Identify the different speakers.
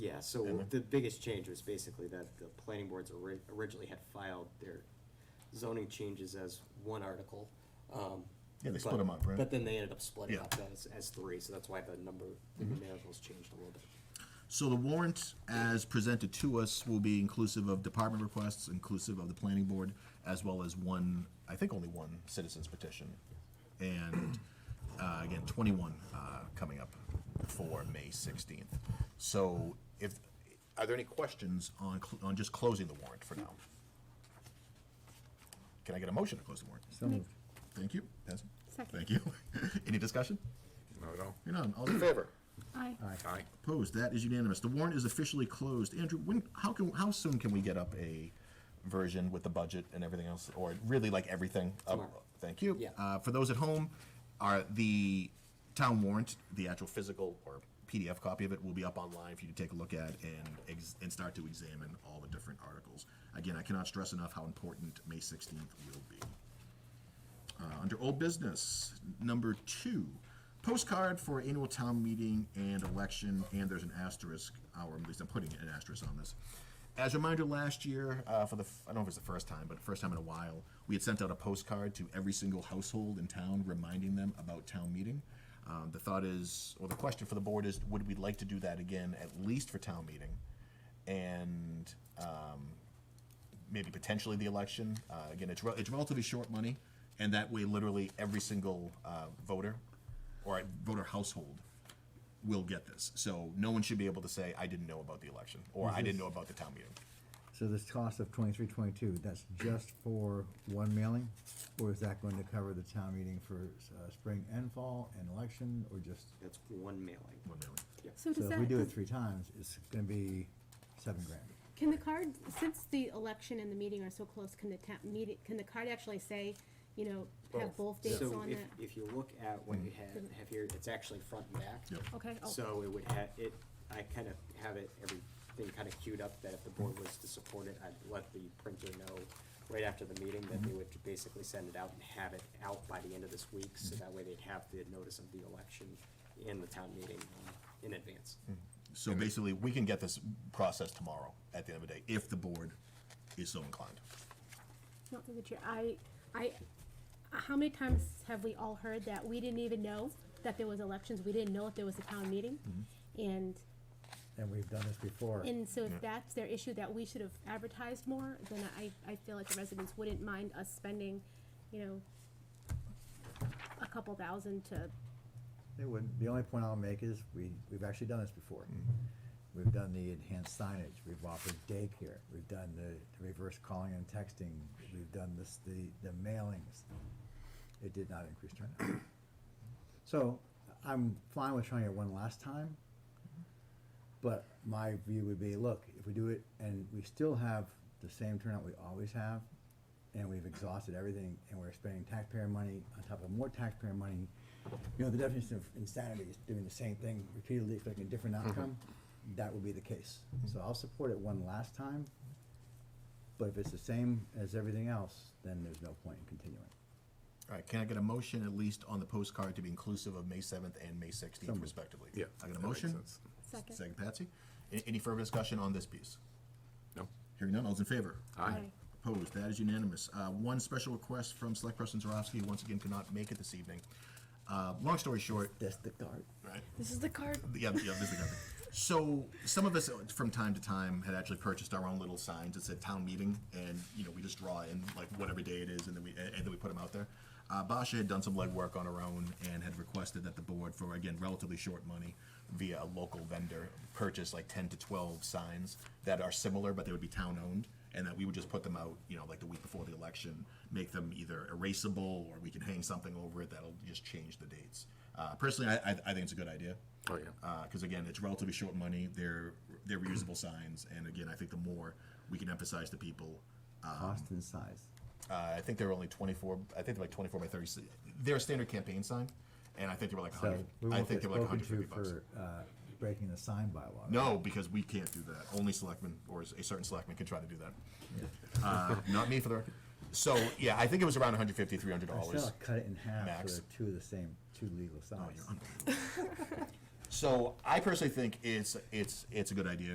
Speaker 1: Yeah, so
Speaker 2: And the-
Speaker 1: the biggest change was basically that the planning boards ori- originally had filed their zoning changes as one article. um,
Speaker 2: Yeah, they
Speaker 1: but-
Speaker 2: split 'em up, right?
Speaker 1: But then they ended up splitting
Speaker 2: Yeah. Mm-hmm.
Speaker 1: up as, as three, so that's why the number, the numericals changed a little bit.
Speaker 2: So the warrant as presented to us will be inclusive of department requests, inclusive of the planning board, as well as one, I think only one citizen's petition. And, uh, again, twenty-one, uh, coming up for May sixteenth. So if, are there any questions on, cl- on just closing the warrant for now? Can I get a motion to close the warrant? Thank you, Benson.
Speaker 3: Second.
Speaker 2: Thank you. Any discussion?
Speaker 4: Not at all.
Speaker 2: You're none, all in favor?
Speaker 3: Aye.
Speaker 4: Aye.
Speaker 2: Opposed, that is unanimous. The warrant is officially closed. Andrew, when, how can, how soon can we get up a version with the budget and everything else, or really like everything? up-
Speaker 1: Tomorrow.
Speaker 2: Thank you.
Speaker 1: Yeah.
Speaker 2: Uh, for those at home, are the town warrant, the actual physical or PDF copy of it will be up online for you to take a look at and, ex- and start to examine all the different articles. Again, I cannot stress enough how important May sixteenth will be. Uh, under old business, number two, postcard for annual town meeting and election, and there's an asterisk, or at least I'm putting an asterisk on this. As a reminder, last year, uh, for the, f- I don't know if it's the first time, but first time in a while, we had sent out a postcard to every single household in town, reminding them about town meeting. Um, the thought is, or the question for the board is, would we like to do that again, at least for town meeting? And, maybe potentially the election. Uh, again, it's, rel- it's relatively short money, and that way, literally every single uh, voter or voter household will get this. So no one should be able to say, "I didn't know about the election" or "I didn't know about the town meeting."
Speaker 5: So this cost of twenty-three, twenty-two, that's just for one mailing? Or is that going to cover the town meeting for uh, spring and fall and election, or just,
Speaker 1: That's one mailing.
Speaker 2: One mailing.
Speaker 3: So
Speaker 5: so
Speaker 3: does
Speaker 5: if we do it
Speaker 3: that,
Speaker 5: three times, it's gonna be seven grand.
Speaker 6: Can the card, since the election and the meeting are so close, can the ta- meeting, can the card actually say, you know, have both dates
Speaker 1: So
Speaker 6: on
Speaker 1: if,
Speaker 6: it?
Speaker 1: if you look at what you have, have here, it's actually front and back.
Speaker 2: Mm-hmm. Yep.
Speaker 3: Okay, oh.
Speaker 1: So it would have, it, I kind of have it, everything kind of queued up, that if the board was to support it, I'd let the printer know right after the meeting that
Speaker 3: Mm-hmm.
Speaker 1: they would basically send it out and have it out by the end of this week, so
Speaker 3: Mm-hmm.
Speaker 1: that way they'd have the notice of the election and the town meeting um, in advance.
Speaker 2: So basically, we can get this process tomorrow at the end of the day, if the board is so inclined.
Speaker 6: Not through the chair, I, I, how many times have we all heard that we didn't even know that there was elections, we didn't know if there was a town meeting?
Speaker 5: Mm-hmm.
Speaker 6: And,
Speaker 5: And we've done this before.
Speaker 6: and so if that's their issue, that we should have advertised more, then I, I feel like the residents wouldn't mind us spending, you know, a couple thousand to,
Speaker 5: It would, the only point I'll make is, we, we've actually done this before. We've done the enhanced signage, we've offered daycare, we've done the the reverse calling and texting, we've done this, the, the mailings. It did not increase turnout. So, I'm fine with trying it one last time, but my view would be, look, if we do it and we still have the same turnout we always have, and we've exhausted everything, and we're spending taxpayer money on top of more taxpayer money, you know, the definition of insanity is doing the same thing repeatedly, expecting a different outcome, that would be the case. So I'll support it one last time, but if it's the same as everything else, then there's no point in continuing.
Speaker 2: All right, can I get a motion at least on the postcard to be inclusive of May seventh and May sixteenth
Speaker 5: Some-
Speaker 2: respectively?
Speaker 4: Yeah,
Speaker 2: I got
Speaker 4: that
Speaker 2: a
Speaker 4: makes
Speaker 2: motion?
Speaker 4: sense.
Speaker 6: Second.
Speaker 2: Second, Patsy. A- Any further discussion on this piece?
Speaker 4: No?
Speaker 2: Hearing none, all's in favor?
Speaker 4: Aye.
Speaker 6: Aye.
Speaker 2: Opposed, that is unanimous. Uh, One special request from Select Person Zarowski, who once again could not make it this evening. Uh, Long story short,
Speaker 5: That's the card.
Speaker 2: right?
Speaker 3: This is the card.
Speaker 2: Yeah, yeah, this is the guy. So some of us uh, from time to time had actually purchased our own little signs that said town meeting, and you know we just draw in like whatever day it is, and then we and and then we put them out there. Uh, Basha had done some legwork on her own and had requested that the board, for again relatively short money, via a local vendor, purchase like ten to twelve signs that are similar, but they would be town owned, and that we would just put them out, you know, like the week before the election, make them either erasable or we can hang something over it that'll just change the dates. Uh, personally, I, I, I think it's a good idea
Speaker 4: Oh, yeah.
Speaker 2: because Uh, again, it's relatively short money. They're they're reusable signs, and again, I think the more we can emphasize to people,
Speaker 5: Cost and size.
Speaker 2: uh, I think they're only twenty four. I think they're like twenty four by thirty. They're a standard campaign sign, and I think they were like
Speaker 5: So
Speaker 2: 100.
Speaker 5: we
Speaker 2: I
Speaker 5: won't
Speaker 2: think
Speaker 5: get
Speaker 2: they were like
Speaker 5: spoken
Speaker 2: 150
Speaker 5: to
Speaker 2: bucks.
Speaker 5: for, uh, breaking the sign bylaw.
Speaker 2: No, because we can't do that. Only selectmen or a certain selectman can try to do that. Uh, not me for the. record. So yeah, I think it was around 150 300
Speaker 5: I
Speaker 2: dollars.
Speaker 5: still "Oh, cut it in half
Speaker 2: max.
Speaker 5: for two of the same, two legal size.
Speaker 2: So I personally think it's it's it's a good idea.